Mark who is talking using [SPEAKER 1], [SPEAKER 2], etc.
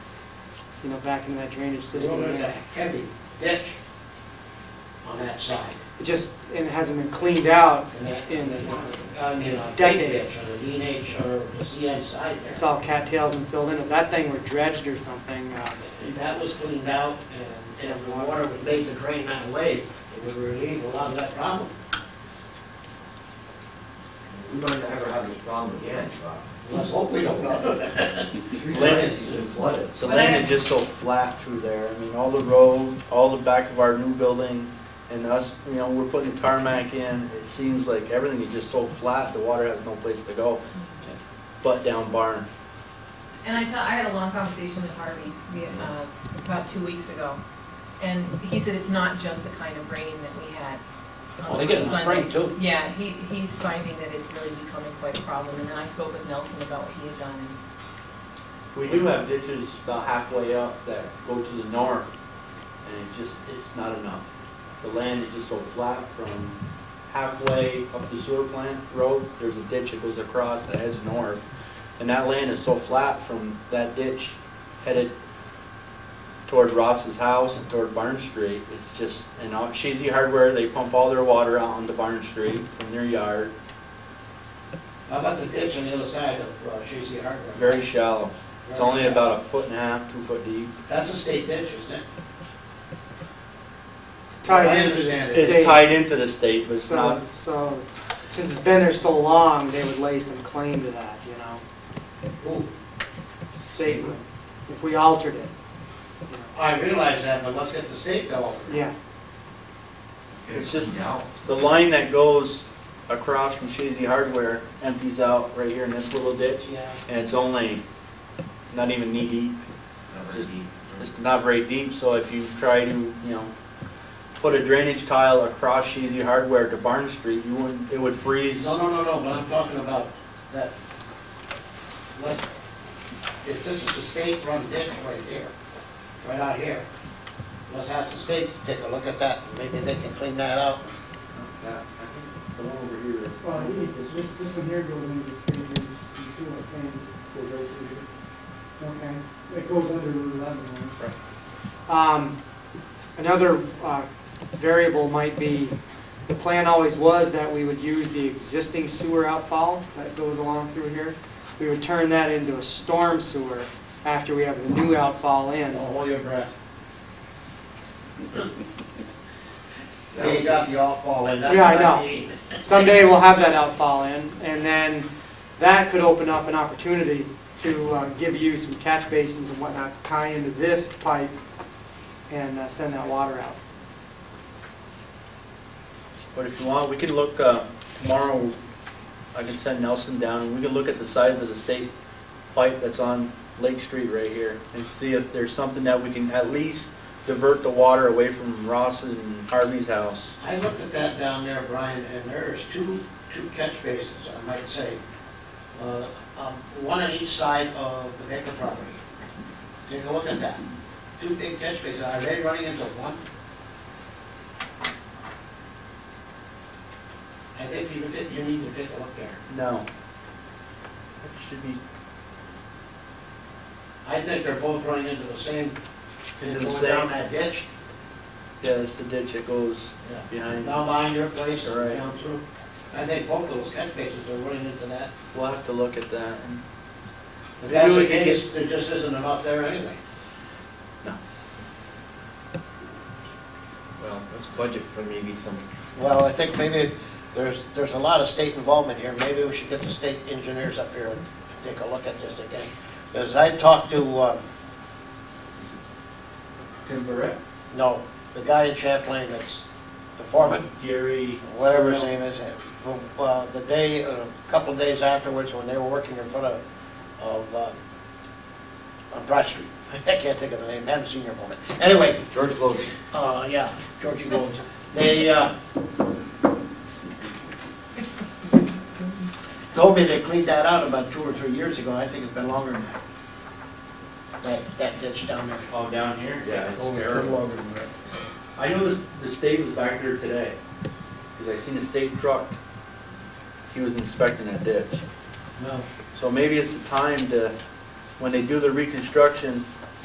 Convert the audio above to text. [SPEAKER 1] you know, back into that drainage
[SPEAKER 2] Well,
[SPEAKER 1] system.
[SPEAKER 2] there's a
[SPEAKER 1] It
[SPEAKER 2] heavy ditch on that side,
[SPEAKER 1] just, and it hasn't been cleaned out,
[SPEAKER 2] and that, and the, I mean, a big
[SPEAKER 1] Decades.
[SPEAKER 2] ditch on the DNH or the CN side
[SPEAKER 1] it's
[SPEAKER 2] there.
[SPEAKER 1] all cattails and filled in. If that thing were dredged or something, uh,
[SPEAKER 2] If that was cleaned out and, and the water was made to drain that way, it would relieve a lot of that problem.
[SPEAKER 3] We might not ever have this problem again, but
[SPEAKER 2] Let's hope we don't.
[SPEAKER 3] three times he's been flooded.
[SPEAKER 4] The land is just so flat through there. I mean, all the road, all the back of our new building, and us, you know, we're putting tarmac in. It seems like everything is just so flat, the water has no place to go, but down barn.
[SPEAKER 5] And I tell, I had a long conversation with Harvey, the, uh, about two weeks ago, and he said it's not just the kind of rain that we had.
[SPEAKER 2] Well, they get in the
[SPEAKER 5] Sunday.
[SPEAKER 2] spring, too.
[SPEAKER 5] Yeah, he, he's finding that it's really becoming quite a problem, and then I spoke with Nelson about what he had done, and
[SPEAKER 4] We do have ditches about halfway up that go to the north, and it just, it's not enough. The land is just so flat from halfway up the sewer plant road, there's a ditch that goes across that heads north. And that land is so flat from that ditch headed toward Ross's house and toward Barn Street. It's just, and out Cheesy Hardware, they pump all their water out onto Barn Street from their yard,
[SPEAKER 2] How about the ditch on the other side of uh, Shesey Harbor?
[SPEAKER 4] very shallow. It's only about a foot and a half, two foot deep.
[SPEAKER 2] That's a state ditch, isn't it?
[SPEAKER 1] it's tied
[SPEAKER 2] I
[SPEAKER 1] into the
[SPEAKER 2] understand it.
[SPEAKER 1] state.
[SPEAKER 4] It's tied into the state, but it's not,
[SPEAKER 1] So, so, since it's been there so long, they would lay some claim to that, you know,
[SPEAKER 2] Ooh,
[SPEAKER 1] statement, if we altered it. you know.
[SPEAKER 2] I realize that, but let's get the state going.
[SPEAKER 1] Yeah,
[SPEAKER 4] it's just,
[SPEAKER 3] Yeah.
[SPEAKER 4] the line that goes across from Shazy Hardware empties out right here in this little ditch,
[SPEAKER 2] Yeah.
[SPEAKER 4] and it's only not even knee deep. It's not very deep, so if you try to, you know, put a drainage tile across Shazy Hardware to Barn Street, you wouldn't, it would freeze.
[SPEAKER 2] No, no, no, no, but I'm talking about that, let's, if this is a state-run ditch right here, right out here, let's ask the state to take a look at that, maybe they can clean that out.
[SPEAKER 4] That- I think The one over here is-
[SPEAKER 6] Well, it is, It's this, this one here goes into the state emergency too, I think, goes right through here. Okay, it goes under Route eleven, right?
[SPEAKER 1] um, another, uh, variable might be, the plan always was that we would use the existing sewer outfall that goes along through here. We would turn that into a storm sewer after we have the new outfall
[SPEAKER 2] Don't
[SPEAKER 1] in.
[SPEAKER 2] hold your breath. We got the all in. that's
[SPEAKER 1] Yeah, I
[SPEAKER 2] what
[SPEAKER 1] know.
[SPEAKER 2] mean.
[SPEAKER 1] Someday we'll have that outfall in, and then that could open up an opportunity to uh, give you some catch basins and whatnot, tie into this pipe and uh, send that water out.
[SPEAKER 4] But if you want, we can look, uh, tomorrow, I can send Nelson down, and we can look at the size of the state pipe that's on Lake Street right here, and see if there's something that we can at least divert the water away from Ross and Harvey's house.
[SPEAKER 2] I looked at that down there, Brian, and there's two, two catch basins, I might say. Uh, um, One on each side of the Baker property. Take a look at that. Two big catch basins, are they running into one? I think you, did- you need to take a look there.
[SPEAKER 4] No. That should be
[SPEAKER 2] I think they're both running into the same,
[SPEAKER 4] Into the
[SPEAKER 2] going
[SPEAKER 4] same.
[SPEAKER 2] down that ditch.
[SPEAKER 4] Yeah, that's the ditch that goes
[SPEAKER 2] Yeah.
[SPEAKER 4] behind.
[SPEAKER 2] Down behind your place,
[SPEAKER 4] Right.
[SPEAKER 2] down through. I think both of those catch basins are running into that.
[SPEAKER 4] We'll have to look at that. and-
[SPEAKER 2] If
[SPEAKER 4] Maybe
[SPEAKER 2] that's
[SPEAKER 4] we
[SPEAKER 2] the
[SPEAKER 4] could
[SPEAKER 2] case, there just isn't enough there anyway.
[SPEAKER 3] Well, let's budget for maybe some,
[SPEAKER 2] Well, I think maybe there's, there's a lot of state involvement here. Maybe we should get the state engineers up here and take a look at this again. Because I talked to, uh,
[SPEAKER 4] Tim Barrett?
[SPEAKER 2] no, the guy in Champlain that's the foreman,
[SPEAKER 4] Gary.
[SPEAKER 2] whatever his name is, uh, the day, a couple of days afterwards, when they were working in front of, of, uh, on Broad Street. I can't think of the name, haven't seen your moment. Anyway,
[SPEAKER 3] George Bloch.
[SPEAKER 2] uh, yeah, Georgie Gold, they, uh, told me they cleaned that out about two or three years ago, I think it's been longer than that. That, that ditch down there.
[SPEAKER 4] Oh, down here? Yeah, it's
[SPEAKER 2] Oh,
[SPEAKER 3] Only
[SPEAKER 4] terrible.
[SPEAKER 3] longer than that.
[SPEAKER 4] I know this, the state was back there today, because I seen a state truck. He was inspecting that ditch.
[SPEAKER 2] No.
[SPEAKER 4] So maybe it's the time to, when they do the reconstruction,